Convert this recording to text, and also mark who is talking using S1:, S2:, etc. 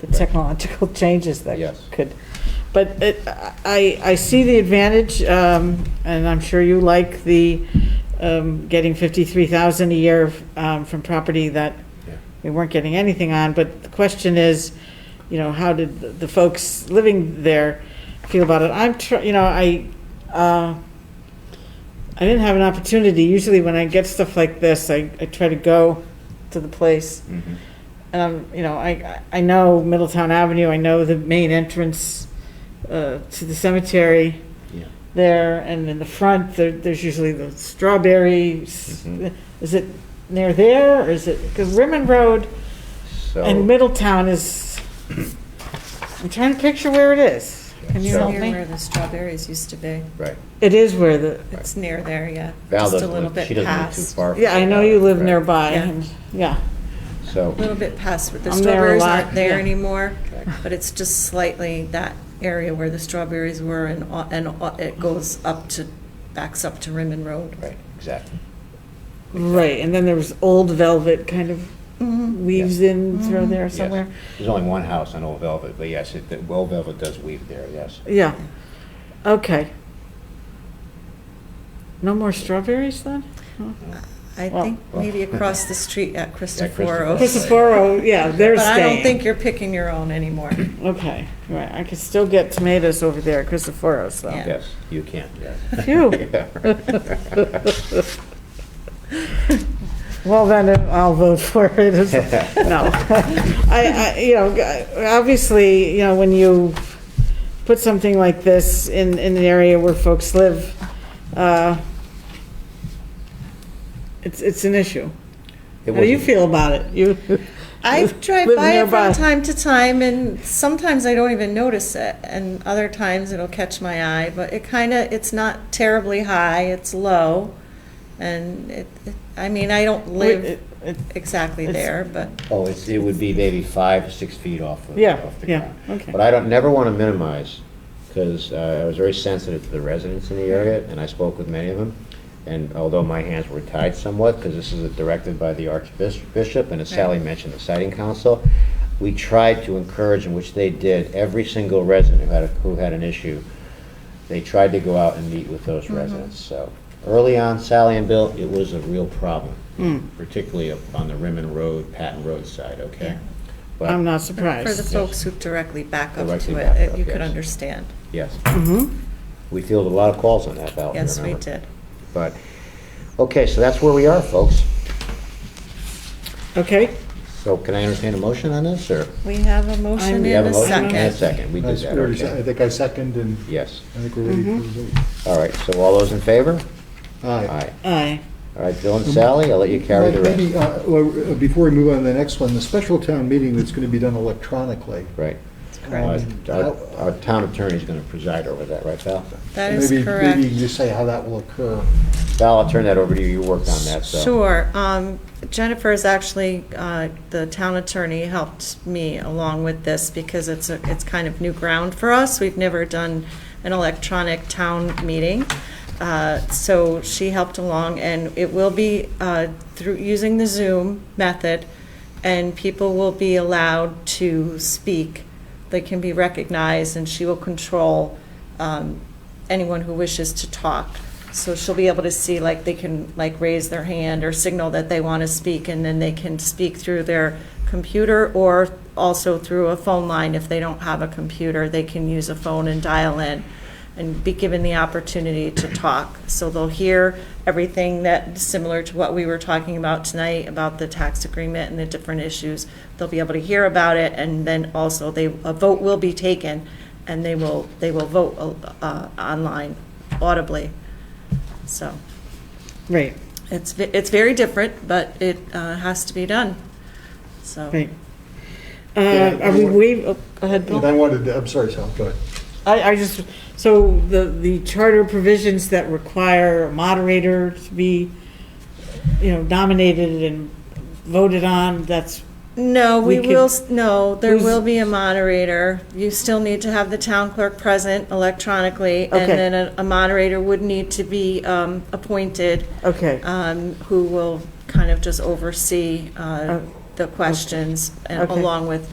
S1: the technological changes that
S2: Yes.
S1: could. But it- I, I see the advantage, um, and I'm sure you like the um, getting 53,000 a year um, from property that
S2: Yeah.
S1: we weren't getting anything on, but the question is, you know, how did the- the folks living there feel about it? I'm, tr- you know, I, uh, I didn't have an opportunity. Usually when I get stuff like this, I, I try to go to the place.
S2: Mhm.
S1: And I'm, you know, I, I know Middletown Avenue, I know the main entrance uh, to the cemetery
S2: Yeah.
S1: there, and in the front, there, there's usually the strawberries.
S2: Mhm.
S1: Is it near there, or is it, because Rimmon Road and
S2: So,
S1: Middletown is, I'm trying to picture where it is. Can you
S2: So-
S1: help
S3: Near
S1: me?
S3: where the strawberries used to be.
S2: right.
S1: It is where the,
S3: It's near there, yeah.
S2: Val
S3: Just a
S2: doesn't
S3: little
S2: live,
S3: bit
S2: she doesn't live too
S3: past.
S2: far. from
S1: yeah, I know you live
S2: Right.
S1: nearby,
S3: Yeah.
S1: and, yeah.
S2: So,
S3: A little bit past, but the
S1: I'm there a
S3: strawberries
S1: lot,
S3: aren't there
S1: yeah.
S3: anymore,
S2: Okay.
S3: but it's just slightly that area where the strawberries were and, au- and au- it goes up to, backs up to Rimmon Road.
S2: right, exactly.
S1: Right, and then there was old velvet kind
S3: Mm-hmm.
S1: of weaves in through there
S2: Yes.
S1: somewhere.
S2: There's only one house on Old Velvet, but yes, it, that- Old Velvet does weave there, yes.
S1: Yeah, okay. No more strawberries then?
S3: I
S1: Well-
S3: think maybe across the street at Cristoforo.
S2: Cristoforo.
S1: Cristoforo, yeah, they're
S3: But I don't think
S1: staying.
S3: you're picking your own anymore.
S1: Okay, right, I could still get tomatoes over there at Cristoforo's though.
S3: Yeah.
S2: Yes, you can, yes.
S1: Phew,
S2: Yeah.
S1: well then uh, I'll vote for it. as- No. I, I, you know, g- obviously, you know, when you put something like this in, in an area where folks live, uh, it's, it's an issue.
S2: It
S1: How do you
S2: wasn't-
S1: feel about it? You,
S3: I drive
S1: Live
S3: by it
S1: nearby.
S3: from time to time, and sometimes I don't even notice it, and other times it'll catch my eye, but it kind of, it's not terribly high, it's low, and it, it- I mean, I don't
S1: It-
S3: live
S1: it-
S3: exactly
S1: it's-
S3: there, but
S2: Oh, it's, it would be maybe five, six feet off of,
S1: Yeah,
S2: off the
S1: yeah,
S2: ground.
S1: okay.
S2: But I don't, never want to minimize, because I was very sensitive to the residents in the area, and I spoke with many of them. And although my hands were tied somewhat, because this is directed by the Archbishop, and as Sally mentioned, the Siting Council, we tried to encourage, and which they did, every single resident who had, a- who had an issue, they tried to go out and meet with those
S1: Mm-hmm.
S2: residents, so. Early on, Sally and Bill, it was a real problem,
S1: Mm.
S2: particularly up on the Rimmon Road, Patton Road side, okay?
S3: Yeah.
S2: But-
S1: I'm not
S3: for the
S1: surprised.
S3: folks who directly back up
S2: Directly
S3: to
S2: back
S3: it,
S2: up,
S3: it, you could
S2: yes.
S3: understand.
S2: Yes,
S1: Mhm.
S2: we fielded a lot of calls on that, Val. if you
S3: Mm-hmm. Yes, we
S2: remember.
S3: did.
S2: But, okay, so that's where we are, folks.
S1: Okay,
S2: So can I entertain a motion on this, or?
S3: We have a motion
S2: We have
S3: in
S2: a
S3: a
S2: motion and a
S3: second.
S2: second, we
S4: I
S2: did that,
S4: already se- I
S2: okay.
S4: think I second, and
S2: Yes,
S4: I think we're ready
S3: Mm-hmm.
S4: for the vote.
S2: all right, so all those in favor?
S4: Aye.
S2: Aye.
S1: aye.
S2: All right, Bill and Sally, I'll let you carry the rest.
S4: Maybe, uh, well, uh, Before we move on to the next one, the special town meeting that's going to be done electronically.
S2: Right.
S3: Correct.
S2: Uh, Our our town attorney's going to preside over that, right, Val?
S3: That is
S4: Maybe-
S3: correct.
S4: Maybe you can just say how that will occur.
S2: Val, I'll turn that over to you, you worked on that, so.
S3: Sure. Um, Jennifer is actually, uh, the town attorney helped me along with this because it's, a- it's kind of new ground for us. We've never done an electronic town meeting. Uh, So she helped along, and it will be uh, through, using the Zoom method, and people will be allowed to speak. They can be recognized, and she will control um, anyone who wishes to talk. So she'll be able to see, like, they can, like, raise their hand or signal that they want to speak, and then they can speak through their computer or also through a phone line. If they don't have a computer, they can use a phone and dial in and be given the opportunity to talk. So they'll hear everything that, similar to what we were talking about tonight, about the tax agreement and the different issues. They'll be able to hear about it, and then also they, a vote will be taken, and they will, they will vote uh, online audibly. So
S1: Right,
S3: it's, ve- it's very different, but it uh, has to be done, so.
S1: right. Uh, Are we waive, oh, go ahead,
S4: And
S1: Bill.
S4: I wanted, to- I'm sorry, Sal, go ahead.
S1: I, I just, so the, the charter provisions that require a moderator to be, you know, nominated and voted on, that's,
S3: No, we
S1: We
S3: will,
S1: could-
S3: s- no, there
S1: Who's-
S3: will be a moderator. You still need to have the town clerk present electronically, and
S1: Okay.
S3: then a- a moderator would need to be um, appointed,
S1: okay,
S3: um, who will kind of just oversee uh,
S1: Oh,
S3: the questions, and
S1: Okay.
S3: along with